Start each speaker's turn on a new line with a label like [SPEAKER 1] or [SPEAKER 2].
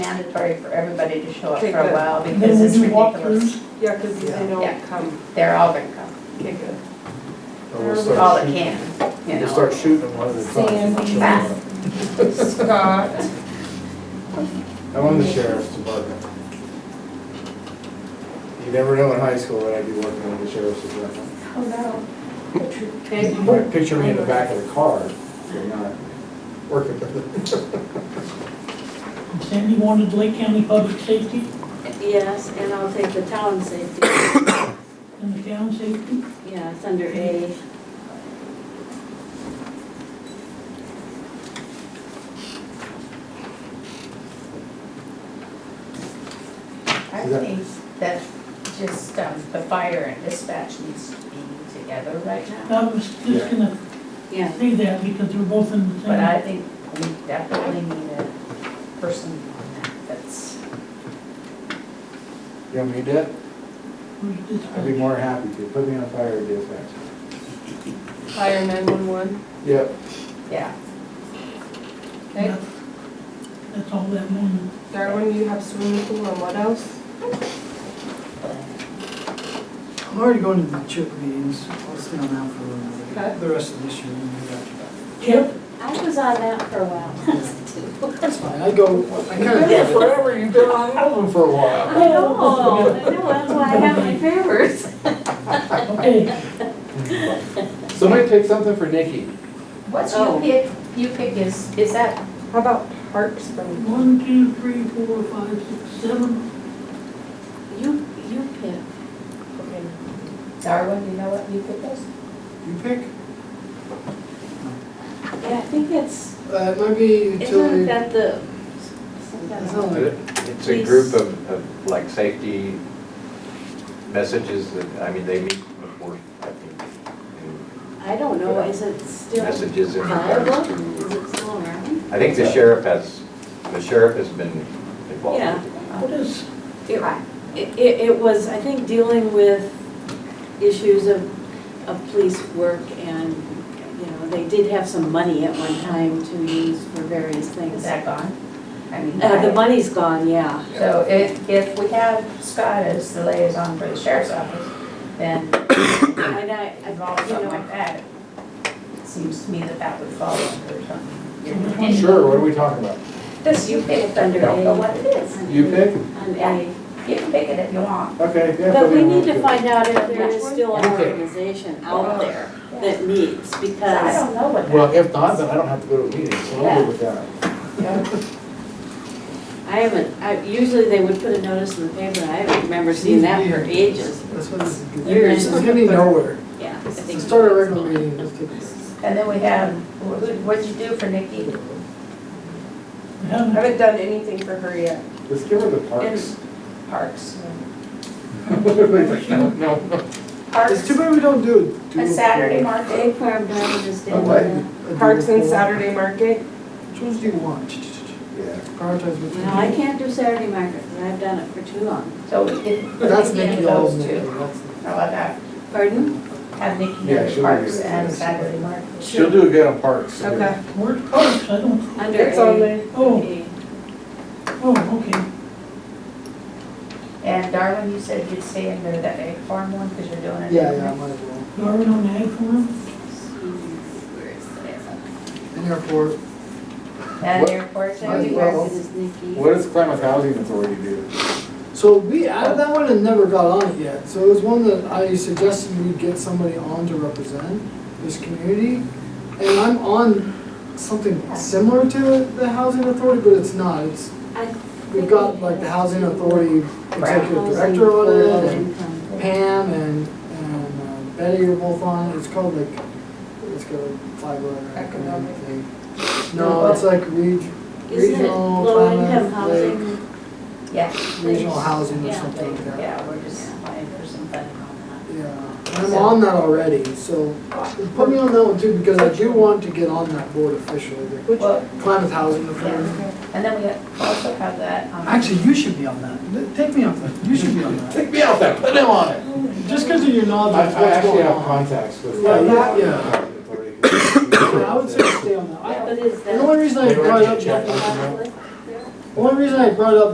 [SPEAKER 1] mandatory for everybody to show up for
[SPEAKER 2] Okay,
[SPEAKER 1] a
[SPEAKER 2] good.
[SPEAKER 1] while
[SPEAKER 3] And then
[SPEAKER 1] because
[SPEAKER 3] we
[SPEAKER 1] it's
[SPEAKER 3] do
[SPEAKER 1] ridiculous.
[SPEAKER 3] walkthroughs.
[SPEAKER 2] Yeah, because they
[SPEAKER 1] Yeah.
[SPEAKER 2] don't come.
[SPEAKER 1] They're all gonna come,
[SPEAKER 2] Okay, good.
[SPEAKER 4] And we'll
[SPEAKER 1] all
[SPEAKER 4] start
[SPEAKER 1] that
[SPEAKER 4] shooting,
[SPEAKER 1] can, you
[SPEAKER 4] we'll
[SPEAKER 1] know.
[SPEAKER 4] start shooting them one at a time.
[SPEAKER 3] Sandy.
[SPEAKER 4] Show
[SPEAKER 2] Scott.
[SPEAKER 4] them. I'm on the sheriff's department. You never know in high school that I'd be working on the sheriff's department.
[SPEAKER 3] Oh, no.
[SPEAKER 2] Okay.
[SPEAKER 4] You might picture me in the back of the car, but not working with it.
[SPEAKER 3] And Sandy wanted Lake County Public Safety
[SPEAKER 5] Yes, and I'll take the town safety,
[SPEAKER 3] and the town safety.
[SPEAKER 5] yes, under A.
[SPEAKER 1] I think that just, um, the fire and dispatch needs to be together right now.
[SPEAKER 3] I was just gonna
[SPEAKER 5] Yeah,
[SPEAKER 3] say that because they're both in the same.
[SPEAKER 1] But I think we definitely need a person on that that's,
[SPEAKER 4] You want me to?
[SPEAKER 3] Where's this
[SPEAKER 4] I'd be
[SPEAKER 3] guy?
[SPEAKER 4] more happy to. Put me on fire dispatch.
[SPEAKER 2] Fire 911.
[SPEAKER 4] Yep.
[SPEAKER 1] yeah.
[SPEAKER 2] Okay.
[SPEAKER 3] That's all that one.
[SPEAKER 2] Darwin, you have swimming pool and what else?
[SPEAKER 6] I'm already going to the chip meetings, I'll stay on that for a little
[SPEAKER 2] Okay.
[SPEAKER 6] bit. The rest of this year, and maybe after that.
[SPEAKER 3] Chip,
[SPEAKER 5] I was on that for a while, too.
[SPEAKER 6] That's fine, I go, I kind of
[SPEAKER 4] Yeah, forever, you've been on all of them for a
[SPEAKER 5] I
[SPEAKER 4] while.
[SPEAKER 5] know, I know, that's why I have my favorites.
[SPEAKER 3] okay,
[SPEAKER 4] Somebody pick something for Nikki.
[SPEAKER 1] What's you
[SPEAKER 5] Oh.
[SPEAKER 1] pick, you pick is, is that,
[SPEAKER 2] How about Parks from,
[SPEAKER 3] one, two, three, four, five, six, seven.
[SPEAKER 5] You, you pick.
[SPEAKER 2] okay,
[SPEAKER 1] Darwin, you know what you pick is?
[SPEAKER 6] You pick,
[SPEAKER 5] Yeah, I think it's,
[SPEAKER 6] uh, it might be
[SPEAKER 5] isn't
[SPEAKER 6] utility.
[SPEAKER 5] that the?
[SPEAKER 6] It's not like-
[SPEAKER 7] It's a group of, of like safety messages that, I mean, they meet before, I think. and
[SPEAKER 5] I don't know, is it still viable?
[SPEAKER 7] Messages in regards
[SPEAKER 5] Is
[SPEAKER 7] to,
[SPEAKER 5] it still around?
[SPEAKER 7] I think the sheriff has, the sheriff has been involved.
[SPEAKER 5] Yeah.
[SPEAKER 3] What is,
[SPEAKER 5] It, it, it was, I think, dealing with issues of, of police work and, you know, they did have some money at one time to use for various
[SPEAKER 1] Is
[SPEAKER 5] things.
[SPEAKER 1] that gone? I mean.
[SPEAKER 5] Uh, the
[SPEAKER 1] I-
[SPEAKER 5] money's gone, yeah.
[SPEAKER 1] So if, if we have Scott as the liaison for the sheriff's office, then
[SPEAKER 5] And I, I-
[SPEAKER 1] involve
[SPEAKER 5] you
[SPEAKER 1] something
[SPEAKER 5] know,
[SPEAKER 1] like that, it seems to me that that would fall under something.
[SPEAKER 3] Yeah.
[SPEAKER 4] Sure, what are we talking about?
[SPEAKER 1] This, you pick it, I don't know what it is.
[SPEAKER 4] You pick?
[SPEAKER 5] on A.
[SPEAKER 1] You can pick it if you want.
[SPEAKER 4] Okay. yeah,
[SPEAKER 5] But
[SPEAKER 4] put me
[SPEAKER 5] we
[SPEAKER 4] on
[SPEAKER 5] need
[SPEAKER 4] that,
[SPEAKER 5] to
[SPEAKER 4] too.
[SPEAKER 5] find out if there is still an
[SPEAKER 4] Yeah.
[SPEAKER 5] organization out there that meets,
[SPEAKER 1] So I
[SPEAKER 5] because,
[SPEAKER 1] don't know what
[SPEAKER 4] Well,
[SPEAKER 1] that,
[SPEAKER 4] if not, then I don't have to go to meetings, so I'll
[SPEAKER 5] Yeah.
[SPEAKER 4] go with that.
[SPEAKER 5] I haven't, I, usually they would put a notice in the paper, and I haven't remember seeing that for ages,
[SPEAKER 6] That's what this is. good.
[SPEAKER 5] Years.
[SPEAKER 6] This is getting nowhere.
[SPEAKER 5] yeah. I
[SPEAKER 6] Let's
[SPEAKER 5] think-
[SPEAKER 6] Start a regular meeting, let's take it.
[SPEAKER 1] and then we have, who, what'd you do for Nikki?
[SPEAKER 3] we haven't,
[SPEAKER 2] I haven't done anything for her yet.
[SPEAKER 4] Let's give her the parks.
[SPEAKER 1] Parks.
[SPEAKER 4] Everybody's like, no, no, no.
[SPEAKER 6] It's
[SPEAKER 1] Parks,
[SPEAKER 6] too bad we don't do it.
[SPEAKER 1] a Saturday market.
[SPEAKER 5] Egg farm diamond is
[SPEAKER 4] Oh,
[SPEAKER 5] down
[SPEAKER 4] what?
[SPEAKER 5] there.
[SPEAKER 2] Parks and Saturday Market.
[SPEAKER 6] Which ones do you want?
[SPEAKER 4] Yeah.
[SPEAKER 6] Prioritize which
[SPEAKER 5] No, I
[SPEAKER 6] ones.
[SPEAKER 5] can't do Saturday market, 'cause I've done it for too long.
[SPEAKER 1] so we did.
[SPEAKER 6] That's
[SPEAKER 1] Nikki
[SPEAKER 6] Nikki,
[SPEAKER 1] and
[SPEAKER 6] all
[SPEAKER 1] those
[SPEAKER 6] of Nikki,
[SPEAKER 1] two.
[SPEAKER 6] that's.
[SPEAKER 1] How about that?
[SPEAKER 5] Pardon?
[SPEAKER 1] Have Nikki
[SPEAKER 4] Yeah,
[SPEAKER 1] and
[SPEAKER 4] she'll
[SPEAKER 1] Parks
[SPEAKER 4] do it.
[SPEAKER 1] and Saturday market.
[SPEAKER 4] She'll do good on parks.
[SPEAKER 2] Okay.
[SPEAKER 3] where's parks? I don't,
[SPEAKER 5] Under
[SPEAKER 2] It's on
[SPEAKER 5] A.
[SPEAKER 2] there.
[SPEAKER 3] oh,
[SPEAKER 5] A.
[SPEAKER 3] oh, okay.
[SPEAKER 1] And Darwin, you said you'd stay in there that egg farm one, because you're doing it.
[SPEAKER 6] Yeah, yeah, I might as well.
[SPEAKER 3] Darwin on the ag farm,
[SPEAKER 5] Where is that?
[SPEAKER 6] And airport,
[SPEAKER 1] And the airport, so
[SPEAKER 6] Might as
[SPEAKER 5] Saturday
[SPEAKER 1] you
[SPEAKER 6] well.
[SPEAKER 5] market is Nikki.
[SPEAKER 4] What does Klamath Housing Authority do?
[SPEAKER 6] So we added that one and never got on it yet. So it was one that I suggested we get somebody on to represent this community. And I'm on something similar to the housing authority, but it's not. It's,
[SPEAKER 5] I
[SPEAKER 6] we've got like the housing authority executive director on it and Pam and, and uh, Betty are both on it. It's called like, it's got a five letter economic thing. No, it's like reg-
[SPEAKER 5] Isn't it
[SPEAKER 6] regional,
[SPEAKER 5] low income
[SPEAKER 6] climate, like
[SPEAKER 5] housing?
[SPEAKER 1] Yeah,
[SPEAKER 6] regional housing or
[SPEAKER 5] Yeah,
[SPEAKER 6] something like that.
[SPEAKER 1] yeah, we're just applying for some funding on
[SPEAKER 6] Yeah, I'm on that already, so put me on that one too, because I do want to get on that board officially, the
[SPEAKER 1] that. Well,
[SPEAKER 6] climate housing authority.
[SPEAKER 1] and then we have- also have that, um.
[SPEAKER 6] Actually, you should be on that, take me off that, you should be on that,
[SPEAKER 4] Take me off that, put him on it.
[SPEAKER 6] just because of your
[SPEAKER 4] I,
[SPEAKER 6] knowledge of
[SPEAKER 4] I
[SPEAKER 6] what's
[SPEAKER 4] actually
[SPEAKER 6] going
[SPEAKER 4] have
[SPEAKER 6] on.
[SPEAKER 4] contacts with.
[SPEAKER 6] Yeah, that-
[SPEAKER 4] Klamath
[SPEAKER 6] yeah.
[SPEAKER 4] Housing Authority. Yeah,
[SPEAKER 6] Yeah, I would say stay on that, I-
[SPEAKER 5] But is
[SPEAKER 6] the
[SPEAKER 5] that?
[SPEAKER 6] only reason I
[SPEAKER 4] They were
[SPEAKER 6] brought
[SPEAKER 4] to
[SPEAKER 6] it
[SPEAKER 4] check
[SPEAKER 6] up,
[SPEAKER 4] with you.
[SPEAKER 5] Conflict there?
[SPEAKER 6] One reason I brought it up